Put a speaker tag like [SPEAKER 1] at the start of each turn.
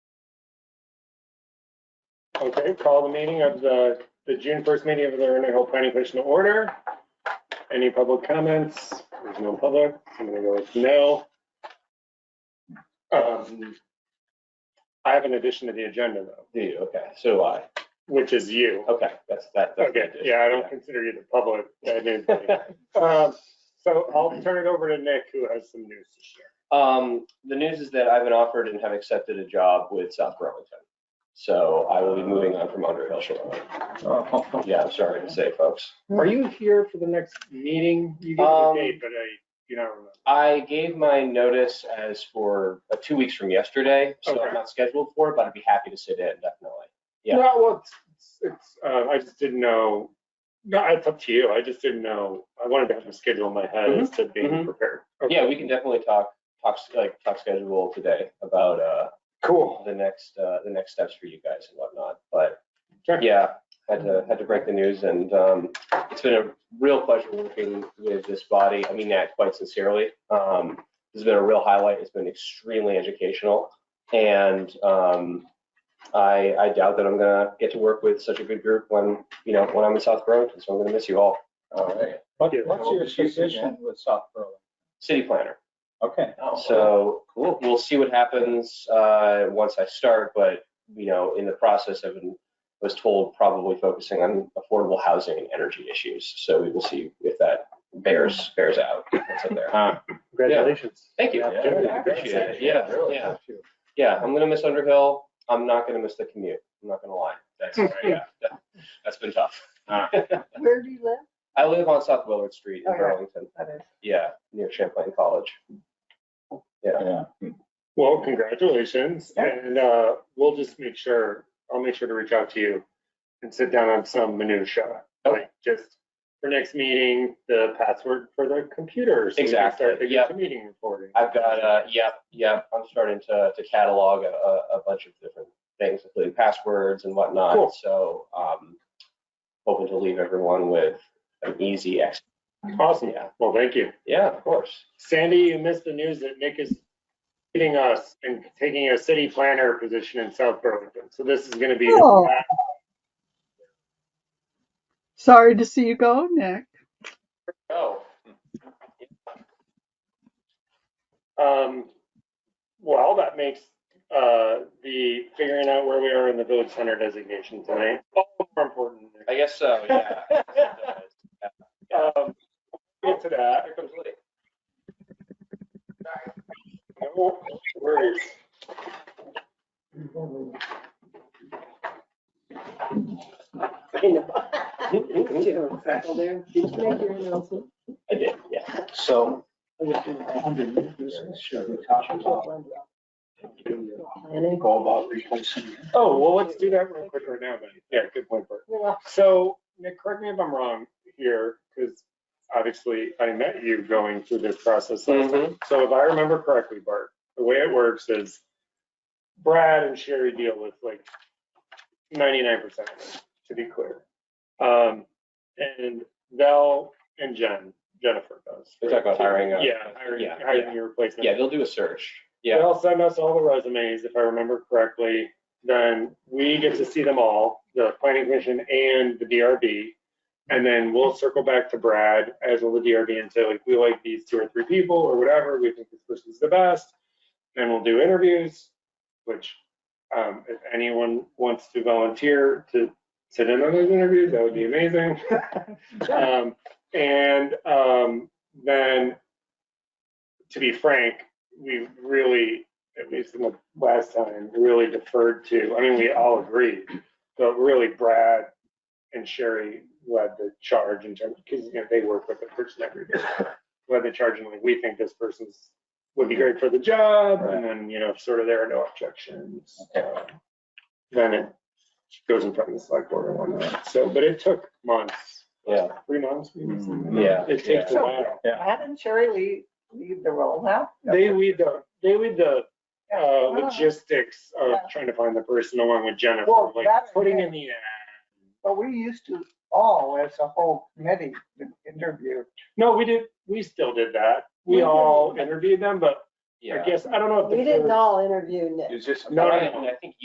[SPEAKER 1] Okay, call the meeting of the, the June first meeting of the Rainier Hill Planning Commission to order. Any public comments? There's no public. I'm gonna go with no. Um, I have an addition to the agenda though,
[SPEAKER 2] Do you? Okay, so do I.
[SPEAKER 1] which is you.
[SPEAKER 2] Okay, that's, that. that's
[SPEAKER 1] Okay,
[SPEAKER 2] good.
[SPEAKER 1] yeah, I don't consider you the public. I didn't think. Um, So I'll turn it over to Nick, who has some news to share.
[SPEAKER 2] Um, the news is that I've been offered and have accepted a job with South Burlington. So I will be moving on from Underhill shortly. Yeah, I'm sorry to say, folks.
[SPEAKER 1] Are you here for the next meeting? You gave
[SPEAKER 2] Um,
[SPEAKER 1] me a date, but I, you know,
[SPEAKER 2] I gave my notice as for uh, two weeks from yesterday, so I'm
[SPEAKER 1] Okay.
[SPEAKER 2] not scheduled for it, but I'd be happy to sit in, definitely. yeah.
[SPEAKER 1] no, well, it's, it's, uh, I just didn't know. No, it's up to you. I just didn't know. I wanted to have a schedule in my head as to being
[SPEAKER 2] Mhm.
[SPEAKER 1] prepared.
[SPEAKER 2] Yeah, we can definitely talk, talk, s- like, talk schedule today about, uh,
[SPEAKER 1] Cool.
[SPEAKER 2] the next, uh, the next steps for you guys and whatnot, but
[SPEAKER 1] Sure.
[SPEAKER 2] yeah, had to, had to break the news and, um, it's been a real pleasure working with this body. I mean that quite sincerely. Um, this has been a real highlight. It's been extremely educational and, um, I, I doubt that I'm gonna get to work with such a good group when, you know, when I'm in South Burlington, so I'm gonna miss you all. Uh,
[SPEAKER 3] What-
[SPEAKER 1] Yeah.
[SPEAKER 3] What's your position with South Berlin?
[SPEAKER 2] City planner.
[SPEAKER 3] Okay.
[SPEAKER 2] So we'll, we'll see what happens uh, once I start, but, you know, in the process, I've been, was told probably focusing on affordable housing and energy issues. So we will see if that bears, bears out. That's up there.
[SPEAKER 1] Ah, Congratulations.
[SPEAKER 2] Thank you.
[SPEAKER 1] Yeah.
[SPEAKER 2] I appreciate it. Yeah, yeah. Yeah, I'm gonna miss Underhill. I'm not gonna miss the commute. I'm not gonna lie. That's, yeah, that- that's been tough.
[SPEAKER 4] Where do you live?
[SPEAKER 2] I live on South Willard Street in
[SPEAKER 4] Okay.
[SPEAKER 2] Burlington. Yeah, near Champlain College.
[SPEAKER 3] Yeah.
[SPEAKER 1] Well, congratulations.
[SPEAKER 4] Yeah.
[SPEAKER 1] And, uh, we'll just make sure, I'll make sure to reach out to you and sit down on some minutia.
[SPEAKER 2] Okay.
[SPEAKER 1] Like just for next meeting, the password for the computers.
[SPEAKER 2] Exactly, yeah.
[SPEAKER 1] Meeting recording.
[SPEAKER 2] I've got, uh, yep, yep, I'm starting to, to catalog a, a a bunch of different things, including passwords and
[SPEAKER 1] Cool.
[SPEAKER 2] whatnot, so, um, hoping to leave everyone with an easy exit.
[SPEAKER 1] Awesome.
[SPEAKER 2] Yeah.
[SPEAKER 1] Well, thank you.
[SPEAKER 2] Yeah, of course.
[SPEAKER 1] Sandy, you missed the news that Nick is leaving us and taking a city planner position in South Burlington. So this is gonna be.
[SPEAKER 4] Oh. Sorry to see you go, Nick.
[SPEAKER 2] Oh,
[SPEAKER 1] Um, well, that makes, uh, the figuring out where we are in the village center designation tonight all more important.
[SPEAKER 2] I guess so, yeah.
[SPEAKER 1] Um, get to that.
[SPEAKER 2] Here comes Lee.
[SPEAKER 1] No worries.
[SPEAKER 4] I know. Well, there, Did you make your announcement?
[SPEAKER 2] I did, yeah.
[SPEAKER 3] So. Should we talk about
[SPEAKER 4] Planning.
[SPEAKER 3] go about replacing?
[SPEAKER 1] Oh, well, let's do that real quick right now then. Yeah, good point, Bert. So, Nick, correct me if I'm wrong here, because obviously I met you going through this process
[SPEAKER 2] Mm-hmm.
[SPEAKER 1] last time. So if I remember correctly, Bart, the way it works is Brad and Sherry deal with like ninety-nine percent of it, to be clear. Um, and Val and Jen, Jennifer does.
[SPEAKER 2] They're talking about hiring a-
[SPEAKER 1] Yeah, hiring,
[SPEAKER 2] yeah,
[SPEAKER 1] hiring your replacement.
[SPEAKER 2] Yeah, they'll do a search. Yeah,
[SPEAKER 1] They'll send us all the resumes, if I remember correctly, then we get to see them all, the planning commission and the DRB. And then we'll circle back to Brad as well the DRB and say like, we like these two or three people or whatever, we think this person's the best. Then we'll do interviews, which, um, if anyone wants to volunteer to sit in on those interviews, that would be amazing. Um, and, um, then, to be frank, we really, at least in the last time, really deferred to, I mean, we all agreed, but really Brad and Sherry led the charge in terms, because, you know, they work with the person every day. Led the charge and like, we think this person's, would be great for the job, and then, you know, sort of there are no objections. uh, Then it goes in front of the select board and whatnot. So, but it took months,
[SPEAKER 2] yeah,
[SPEAKER 1] three months, maybe something like
[SPEAKER 2] Mm, yeah.
[SPEAKER 1] that. It takes a
[SPEAKER 4] So-
[SPEAKER 1] while.
[SPEAKER 4] How did Sherry Lee leave the role now?
[SPEAKER 1] They lead the, they lead the uh,
[SPEAKER 4] Yeah.
[SPEAKER 1] logistics of
[SPEAKER 4] Yeah.
[SPEAKER 1] trying to find the person along with Jennifer,
[SPEAKER 5] Well,
[SPEAKER 1] like
[SPEAKER 5] that's
[SPEAKER 1] putting
[SPEAKER 5] it.
[SPEAKER 1] in the ad.
[SPEAKER 5] But we used to all, as a whole committee, interview.
[SPEAKER 1] No, we did, we still did that. We
[SPEAKER 4] We
[SPEAKER 1] all interviewed them, but I
[SPEAKER 2] Yeah.
[SPEAKER 1] guess, I don't know if. the
[SPEAKER 6] We didn't
[SPEAKER 1] first-
[SPEAKER 6] all interview Nick.
[SPEAKER 3] Is this?
[SPEAKER 1] No, no, no.
[SPEAKER 2] And I think